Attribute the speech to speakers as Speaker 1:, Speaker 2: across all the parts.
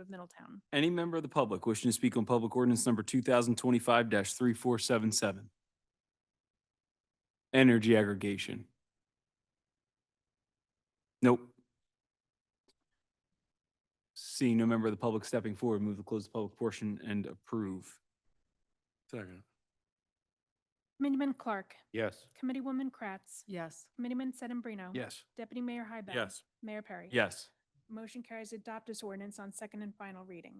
Speaker 1: of Middletown.
Speaker 2: Any member of the public wishing to speak on public ordinance number two thousand twenty-five three four seven seven? Energy aggregation. Nope. Seeing no member of the public stepping forward, move to close the public portion and approve.
Speaker 3: Second.
Speaker 1: Committeeman Clark,
Speaker 3: Yes.
Speaker 1: Committeewoman Kratz,
Speaker 4: yes,
Speaker 1: Committeeman Sedambrino.
Speaker 2: Yes.
Speaker 1: Deputy Mayor Hybel. Mayor Perry.
Speaker 2: Yes.
Speaker 1: Motion carries to adopt this ordinance on second and final reading.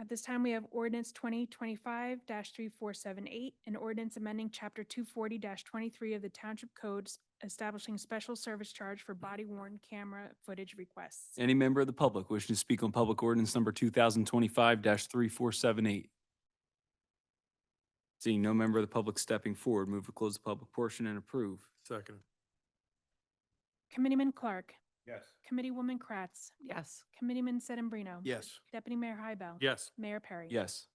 Speaker 1: At this time, we have ordinance twenty twenty-five three four seven eight, an ordinance amending chapter two forty twenty-three of the Township Codes establishing special service charge for body worn camera footage requests.
Speaker 2: Any member of the public wishing to speak on public ordinance number two thousand twenty-five three four seven eight? Seeing no member of the public stepping forward, move to close the public portion and approve.
Speaker 3: Second.
Speaker 1: Committeeman Clark,
Speaker 3: Yes.
Speaker 1: Committeewoman Kratz,
Speaker 4: yes,
Speaker 1: Committeeman Sedambrino.
Speaker 3: Yes.
Speaker 1: Deputy Mayor Hybel.
Speaker 3: Yes.
Speaker 1: Mayor Perry.
Speaker 2: Yes.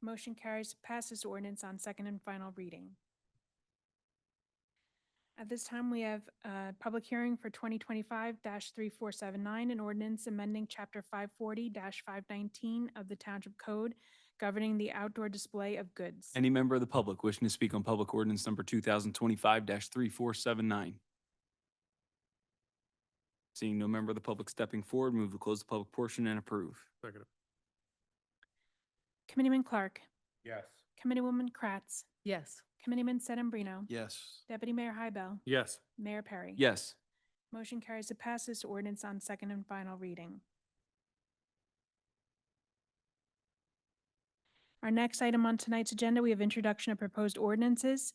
Speaker 1: Motion carries to pass this ordinance on second and final reading. At this time, we have a public hearing for 2025-3479, an ordinance amending Chapter 540-519 of the Township Code governing the outdoor display of goods.
Speaker 2: Any member of the public wishing to speak on public ordinance number two thousand twenty-five three four seven nine? Seeing no member of the public stepping forward, move to close the public portion and approve.
Speaker 3: Second.
Speaker 1: Committeeman Clark,
Speaker 3: Yes.
Speaker 1: Committeewoman Kratz,
Speaker 4: yes,
Speaker 1: Committeeman Sedambrino,
Speaker 3: Yes.
Speaker 1: Deputy Mayor Hybel,
Speaker 3: Yes.
Speaker 1: Mayor Perry.
Speaker 2: Yes.
Speaker 1: Motion carries to pass this ordinance on second and final reading. Our next item on tonight's agenda, we have introduction of proposed ordinances.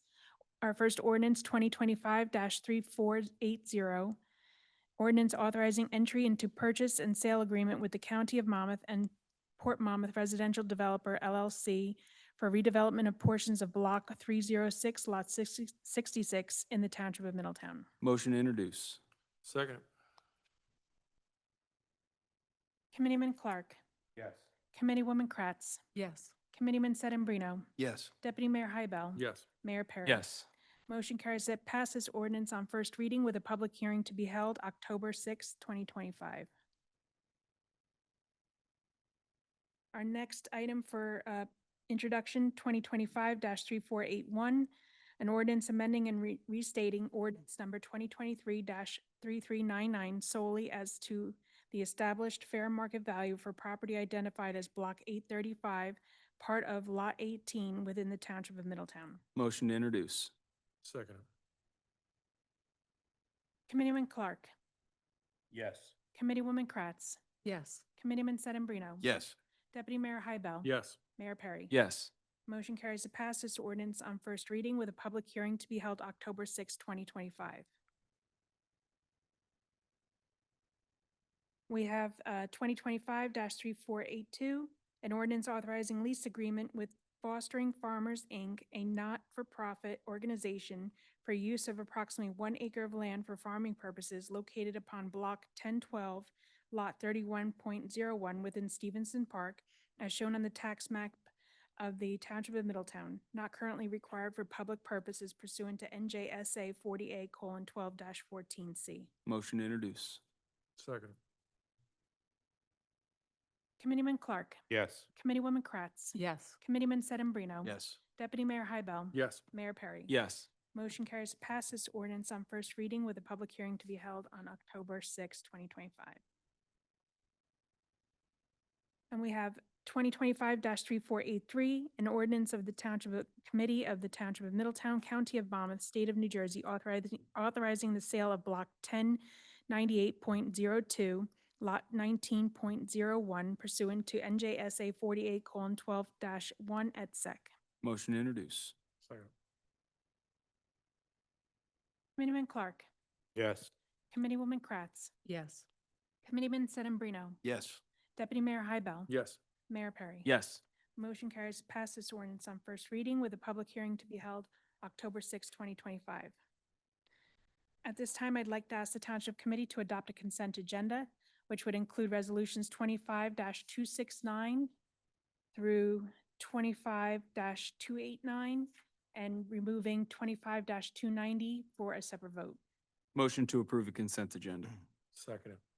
Speaker 1: Our first ordinance, twenty twenty-five three four eight zero. Ordinance authorizing entry into purchase and sale agreement with the County of Monmouth and Port Monmouth Residential Developer LLC for redevelopment of portions of Block three zero six, Lot 60 66 in the Township of Middletown.
Speaker 2: Motion to introduce.
Speaker 3: Second.
Speaker 1: Committeeman Clark,
Speaker 3: Yes.
Speaker 1: Committeewoman Kratz,
Speaker 4: yes,
Speaker 1: Committeeman Sedambrino,
Speaker 3: Yes.
Speaker 1: Deputy Mayor Hybel.
Speaker 3: Yes.
Speaker 1: Mayor Perry.
Speaker 2: Yes.
Speaker 1: Motion carries that passes ordinance on first reading with a public hearing to be held October sixth, twenty twenty-five. Our next item for uh, introduction, twenty twenty-five three four eight one, an ordinance amending and re- restating ordinance number twenty twenty-three three three nine nine solely as to the established fair market value for property identified as block eight thirty-five, part of lot eighteen within the township of Middletown.
Speaker 2: Motion to introduce.
Speaker 3: Second.
Speaker 1: Committeeman Clark.
Speaker 3: Yes.
Speaker 1: Committeewoman Kratz.
Speaker 4: yes,
Speaker 1: Committeeman Sedambrino.
Speaker 3: Yes.
Speaker 1: Deputy Mayor Hybel.
Speaker 3: Yes.
Speaker 1: Mayor Perry.
Speaker 2: Yes.
Speaker 1: Motion carries to pass this ordinance on first reading with a public hearing to be held October sixth, twenty twenty-five. We have uh, twenty twenty-five three four eight two, an ordinance authorizing lease agreement with Fostering Farmers, Inc., a not-for-profit organization for use of approximately one acre of land for farming purposes located upon Block ten twelve, Lot thirty-one point zero one within Stevenson Park, as shown on the tax map of the Township of Middletown, not currently required for public purposes pursuant to NJSA 40A: 40A:12-14C.
Speaker 2: Motion to introduce.
Speaker 3: Second.
Speaker 1: Committeeman Clark,
Speaker 3: Yes.
Speaker 1: Committeewoman Kratz,
Speaker 4: yes,
Speaker 1: Committeeman Sedambrino.
Speaker 2: Yes.
Speaker 1: Deputy Mayor Hybel.
Speaker 3: Yes.
Speaker 1: Mayor Perry.
Speaker 2: Yes.
Speaker 1: Motion carries to pass this ordinance on first reading with a public hearing to be held on October sixth, twenty twenty-five. And we have twenty twenty-five three four eight three, an ordinance of the Township of- Committee of the Township of Middletown, County of Monmouth, State of New Jersey, authorizing, authorizing the sale of block ten ninety-eight point zero two, lot nineteen point zero one pursuant to NJSA forty-eight colon twelve dash one et sec.
Speaker 2: Motion to introduce.
Speaker 3: Second.
Speaker 1: Committeeman Clark,
Speaker 3: Yes.
Speaker 1: Committeewoman Kratz,
Speaker 4: yes,
Speaker 1: Committeeman Sedambrino.
Speaker 3: Yes.
Speaker 1: Deputy Mayor Hybel.
Speaker 3: Yes.
Speaker 1: Mayor Perry.
Speaker 2: Yes.
Speaker 1: Motion carries to pass this ordinance on first reading with a public hearing to be held October sixth, twenty twenty-five. At this time, I'd like to ask the Township Committee to adopt a consent agenda, which would include resolutions twenty-five two six nine through twenty-five two eight nine and removing twenty-five two ninety for a separate vote.
Speaker 2: Motion to approve a consent agenda.
Speaker 3: Second.